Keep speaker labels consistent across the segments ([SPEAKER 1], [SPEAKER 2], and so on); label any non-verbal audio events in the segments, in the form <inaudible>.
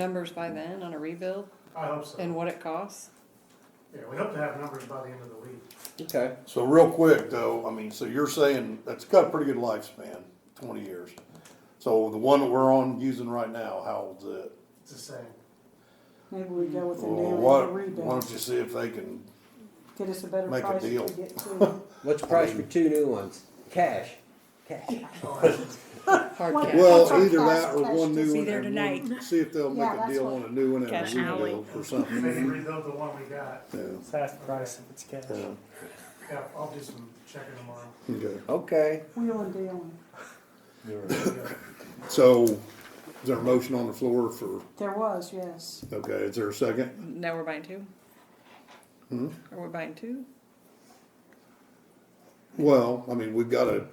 [SPEAKER 1] numbers by then on a rebuild
[SPEAKER 2] I hope so.
[SPEAKER 1] and what it costs?
[SPEAKER 2] Yeah, we hope to have numbers by the end of the week.
[SPEAKER 3] Okay.
[SPEAKER 4] So real quick though, I mean, so you're saying that's got a pretty good lifespan, twenty years. So the one that we're on using right now, how old's it?
[SPEAKER 2] It's the same.
[SPEAKER 5] Maybe we go with a new
[SPEAKER 4] Well,
[SPEAKER 5] and a
[SPEAKER 4] what, why
[SPEAKER 5] rebuild,
[SPEAKER 4] don't you see if they can,
[SPEAKER 5] get us a better
[SPEAKER 4] make a
[SPEAKER 5] price if
[SPEAKER 4] deal?
[SPEAKER 5] we
[SPEAKER 4] <laughs>
[SPEAKER 5] get two.
[SPEAKER 3] What's the price for two new ones? Cash. Cash.
[SPEAKER 1] Hard
[SPEAKER 5] Well,
[SPEAKER 1] cap.
[SPEAKER 5] That's
[SPEAKER 4] well,
[SPEAKER 5] our
[SPEAKER 4] either that
[SPEAKER 5] class
[SPEAKER 4] or
[SPEAKER 5] test.
[SPEAKER 4] one
[SPEAKER 5] It's
[SPEAKER 4] new one
[SPEAKER 6] either
[SPEAKER 4] and
[SPEAKER 6] tonight.
[SPEAKER 4] one, see if they'll make
[SPEAKER 5] Yeah,
[SPEAKER 4] a
[SPEAKER 5] that's
[SPEAKER 4] deal
[SPEAKER 5] what-
[SPEAKER 4] on a new one and
[SPEAKER 6] Cash
[SPEAKER 4] a rebuild or
[SPEAKER 2] Maybe
[SPEAKER 4] something.
[SPEAKER 2] rebuild the one we got.
[SPEAKER 4] Yeah,
[SPEAKER 7] It's half the price if it's cash.
[SPEAKER 4] yeah,
[SPEAKER 2] Yeah, I'll do some checking tomorrow.
[SPEAKER 3] Okay.
[SPEAKER 4] okay.
[SPEAKER 5] Wheel and deal.
[SPEAKER 4] So, is there a motion on the floor for,
[SPEAKER 5] There was, yes.
[SPEAKER 4] okay, is there a second?
[SPEAKER 1] Now we're buying two? Are we buying two?
[SPEAKER 4] Well, I mean, we've gotta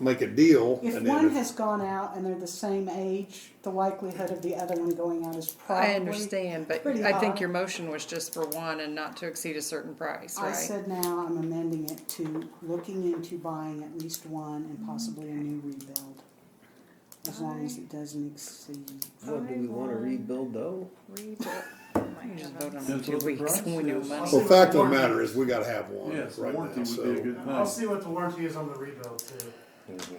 [SPEAKER 4] make a deal.
[SPEAKER 5] If
[SPEAKER 4] and then
[SPEAKER 5] one has gone out and they're the same age, the likelihood of the other one going out is probably.
[SPEAKER 1] I understand, but
[SPEAKER 5] pretty
[SPEAKER 1] I think
[SPEAKER 5] high.
[SPEAKER 1] your motion was just for one and not to exceed a certain price,
[SPEAKER 5] I
[SPEAKER 1] right?
[SPEAKER 5] said now I'm amending it to looking into buying at least one and possibly a new rebuild. As long as it doesn't exceed.
[SPEAKER 3] What do we want to rebuild though?
[SPEAKER 6] Read it.
[SPEAKER 1] We can just vote on it in
[SPEAKER 8] That's
[SPEAKER 1] two
[SPEAKER 8] what the
[SPEAKER 1] weeks
[SPEAKER 8] price
[SPEAKER 1] when we know
[SPEAKER 8] is.
[SPEAKER 1] money.
[SPEAKER 4] Well, fact of the matter is, we gotta have one
[SPEAKER 8] Yes,
[SPEAKER 4] right
[SPEAKER 8] warranty
[SPEAKER 4] now,
[SPEAKER 8] would be a
[SPEAKER 4] so.
[SPEAKER 8] good
[SPEAKER 2] I'll
[SPEAKER 8] thing.
[SPEAKER 2] see what the warranty is on the rebuild too.
[SPEAKER 4] So-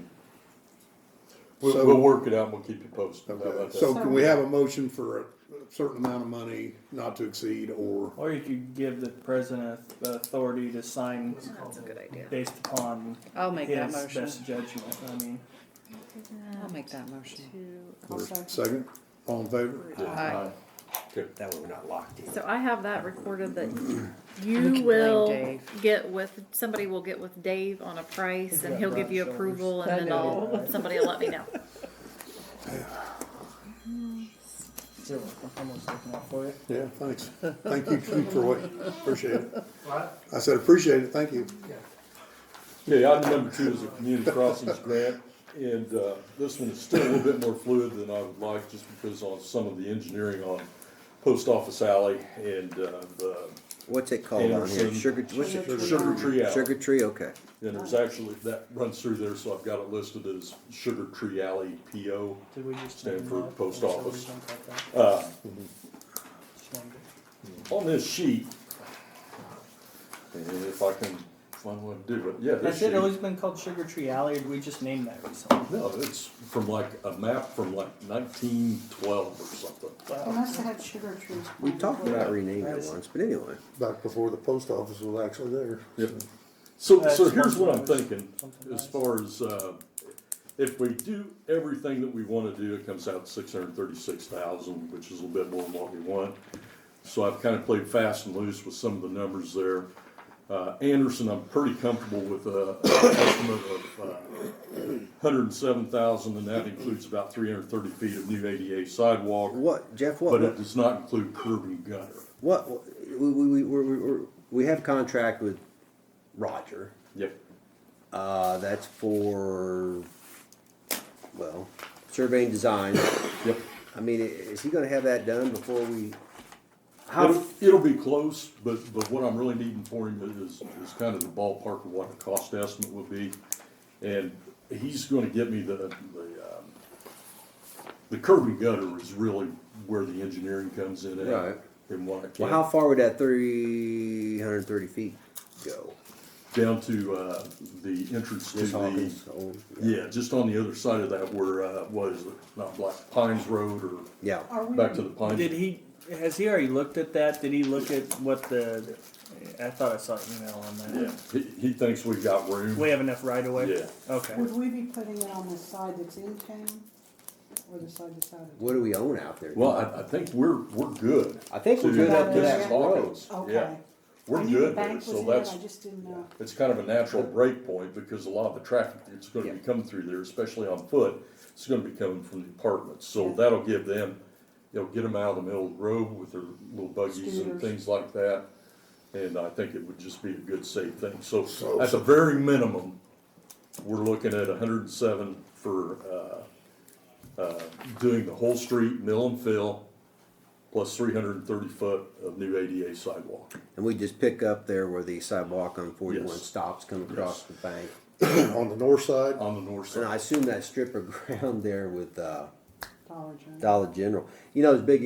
[SPEAKER 8] We'll, we'll work it out and we'll keep you posted. How about
[SPEAKER 4] Okay,
[SPEAKER 8] that?
[SPEAKER 4] so can we have a motion for a certain amount of money not to exceed or,
[SPEAKER 7] Or you could give the president the authority to sign
[SPEAKER 2] What's it called?
[SPEAKER 1] Oh, That's a good idea.
[SPEAKER 7] based upon
[SPEAKER 1] I'll make that
[SPEAKER 7] his
[SPEAKER 1] motion.
[SPEAKER 7] best judgment. I mean,
[SPEAKER 1] I'll make that motion.
[SPEAKER 5] I'll
[SPEAKER 4] or
[SPEAKER 5] second.
[SPEAKER 4] second? All in favor?
[SPEAKER 1] Aye.
[SPEAKER 3] That way we're not locked in.
[SPEAKER 6] So I have that recorded that
[SPEAKER 1] We
[SPEAKER 6] you
[SPEAKER 1] can blame
[SPEAKER 6] will
[SPEAKER 1] Dave.
[SPEAKER 6] get with, somebody will get with Dave on a price and
[SPEAKER 7] got
[SPEAKER 6] he'll give you
[SPEAKER 7] broad
[SPEAKER 6] approval and
[SPEAKER 1] I
[SPEAKER 6] then
[SPEAKER 1] know.
[SPEAKER 6] I'll, somebody will let me know.
[SPEAKER 7] you're welcome. I'm almost looking out for you.
[SPEAKER 4] Yeah, thanks. Thank you, Troy. Appreciate it.
[SPEAKER 2] What?
[SPEAKER 4] I said appreciate it, thank you.
[SPEAKER 2] Yeah.
[SPEAKER 8] Yeah, item number two is a community crossings grant, and, uh, this one's still a little bit more fluid than I would like, just because on some of the engineering on Post Office Alley and, uh, the
[SPEAKER 3] What's it called on here?
[SPEAKER 8] Anderson.
[SPEAKER 3] Sugar, what's it?
[SPEAKER 8] Sugar Tree Alley.
[SPEAKER 3] Sugar Tree, okay.
[SPEAKER 8] And there's actually, that runs through there, so I've got it listed as Sugar Tree Alley PO.
[SPEAKER 7] Did we just
[SPEAKER 8] Stand
[SPEAKER 7] name
[SPEAKER 8] for
[SPEAKER 7] that?
[SPEAKER 8] post
[SPEAKER 7] Or should we
[SPEAKER 8] office. Uh, mm-hmm.
[SPEAKER 7] jump like that? Just wondered.
[SPEAKER 8] On this sheet, and if I can find a way to do it, yeah, this
[SPEAKER 7] Has
[SPEAKER 8] sheet.
[SPEAKER 7] it always been called Sugar Tree Alley, or did we just name that recently?
[SPEAKER 8] No, it's from like a map from like nineteen twelve or something.
[SPEAKER 5] We must have had sugar trees.
[SPEAKER 3] We talked about renaming it
[SPEAKER 7] Nice.
[SPEAKER 3] once, but anyway.
[SPEAKER 4] Back before the post office was actually there.
[SPEAKER 8] So,
[SPEAKER 7] That's
[SPEAKER 8] so here's what I'm
[SPEAKER 7] something nice.
[SPEAKER 8] thinking,
[SPEAKER 7] Something
[SPEAKER 8] as
[SPEAKER 7] nice.
[SPEAKER 8] far as, uh, if we do everything that we wanna do, it comes out six hundred and thirty-six thousand, which is a little bit more than what we want. So I've kinda played fast and loose with some of the numbers there. Uh, Anderson, I'm pretty comfortable with a estimate of, uh, hundred and seven thousand, and that includes about three hundred and thirty feet of new ADA sidewalk,
[SPEAKER 3] What, Jeff, what,
[SPEAKER 8] but it
[SPEAKER 3] what,
[SPEAKER 8] does not include curb and gutter.
[SPEAKER 3] what, we, we, we, we, we, we have contract with Roger.
[SPEAKER 8] Yep.
[SPEAKER 3] Uh, that's for, well, surveying design.
[SPEAKER 8] Yep.
[SPEAKER 3] I mean, i- is he gonna have that done before we? How,
[SPEAKER 8] It'll, it'll be close, but, but what I'm really needing for him is, is kind of the ballpark of what the cost estimate would be. And he's gonna get me the, the, um, the curb and gutter is really where the engineering comes in
[SPEAKER 3] Right.
[SPEAKER 8] at. And what I
[SPEAKER 3] well, how
[SPEAKER 8] can,
[SPEAKER 3] far would that three hundred and thirty feet go?
[SPEAKER 8] down to, uh, the entrance to
[SPEAKER 3] Miss
[SPEAKER 8] the,
[SPEAKER 3] Hawkins, old-
[SPEAKER 8] yeah, just on the other side of that where, uh, what is it, not Black Pines Road or
[SPEAKER 3] Yeah.
[SPEAKER 5] Are we?
[SPEAKER 8] back to the Pines.
[SPEAKER 7] Did he? Has he already looked at that? Did he look at what the? I thought I saw an email on that.
[SPEAKER 8] Yeah, he, he thinks we've got room.
[SPEAKER 7] We have enough right away.
[SPEAKER 8] Yeah.
[SPEAKER 7] Okay.
[SPEAKER 5] Would we be putting it on the side that's in town or the side that's out of town?
[SPEAKER 3] What do we own out there?
[SPEAKER 8] Well, I, I think we're, we're good.
[SPEAKER 3] I think we're
[SPEAKER 8] to-
[SPEAKER 3] good up to
[SPEAKER 5] Yeah.
[SPEAKER 3] that road.
[SPEAKER 8] Hawkins. Yeah,
[SPEAKER 5] Okay. I
[SPEAKER 8] We're
[SPEAKER 5] knew the
[SPEAKER 8] good there,
[SPEAKER 5] bank was
[SPEAKER 8] so
[SPEAKER 5] in it,
[SPEAKER 8] that's,
[SPEAKER 5] I just didn't know.
[SPEAKER 8] it's kind of a natural break point because a lot of the traffic that's gonna
[SPEAKER 3] Yeah.
[SPEAKER 8] be coming through there, especially on foot, it's gonna be coming from the apartments. So
[SPEAKER 5] Yeah.
[SPEAKER 8] that'll give them, it'll get them out of the middle of the road with their little buggies and
[SPEAKER 5] Scooters.
[SPEAKER 8] things like that. And I think it would just be a good safe thing. So
[SPEAKER 4] So-
[SPEAKER 8] at the very minimum, we're looking at hundred and seven for, uh, uh, doing the whole street, mill and fill, plus three hundred and thirty foot of new ADA sidewalk.
[SPEAKER 3] And we just pick up there where the sidewalk on forty-one
[SPEAKER 8] Yes.
[SPEAKER 3] stops, come across
[SPEAKER 8] Yes.
[SPEAKER 3] the bank.
[SPEAKER 4] <clears throat> On the north side,
[SPEAKER 8] On the north side.
[SPEAKER 3] <laughs> And I assume that strip of ground there with, uh,
[SPEAKER 5] Dollar General.
[SPEAKER 3] Dollar General. You know, it's big